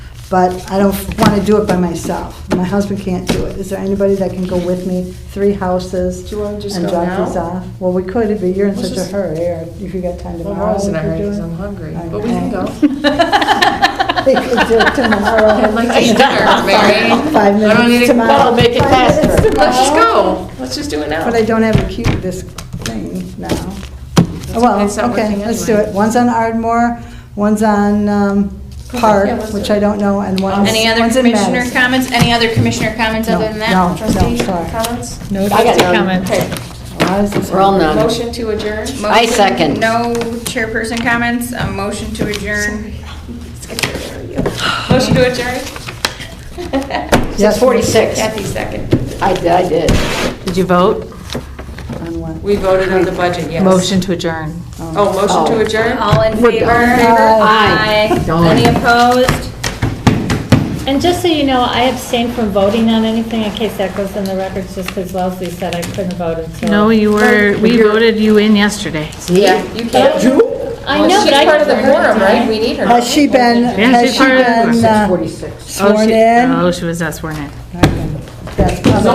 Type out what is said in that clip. but I don't want to do it by myself. My husband can't do it. Is there anybody that can go with me? Three houses. Do you wanna just and go drop now? these off? Well, we could, but you're in Let's such a just- hurry, or if you got time Well, tomorrow. I was in a we could hurry do 'cause it. I'm hungry, I but we can know. go. They could do it tomorrow. I'd like to eat dinner, Mary. Five I don't need minutes to- tomorrow. That'll make it Five minutes faster. Let's just tomorrow. go. Let's just do it now. But I don't have a cue, this thing now. Oh, okay, it's Well, not okay, working let's do anyway. it. One's on Ardmore, one's on um, Park, yeah, let's do which it. I don't know, and one's Any other one's in commissioner Madison. comments? Any other commissioner comments No, other than that? no, no, Trustee sorry. comments? I got none. Okay. Why is this- We're all none. Motion to adjourn? I second. No chairperson comments, a motion to adjourn. Motion to adjourn? Yes, 46. Kathy second. I I did. Did you vote? on one. We voted on the budget, yes. Motion to adjourn. Oh, motion to adjourn? All in We're favor? done. Aye. Done. Any opposed? And just so you know, I abstained from voting on anything in case that goes in the records, just because Leslie said I couldn't vote until. No, Oh, you were, Oh, we voted you in yesterday. Yeah, you can't. I know, but I. She's part of the quorum, right? We need her. Has she been, Yeah, has she's she part of the been uh, 46. Oh, sworn she- in? Oh, she was not sworn in. That's probably-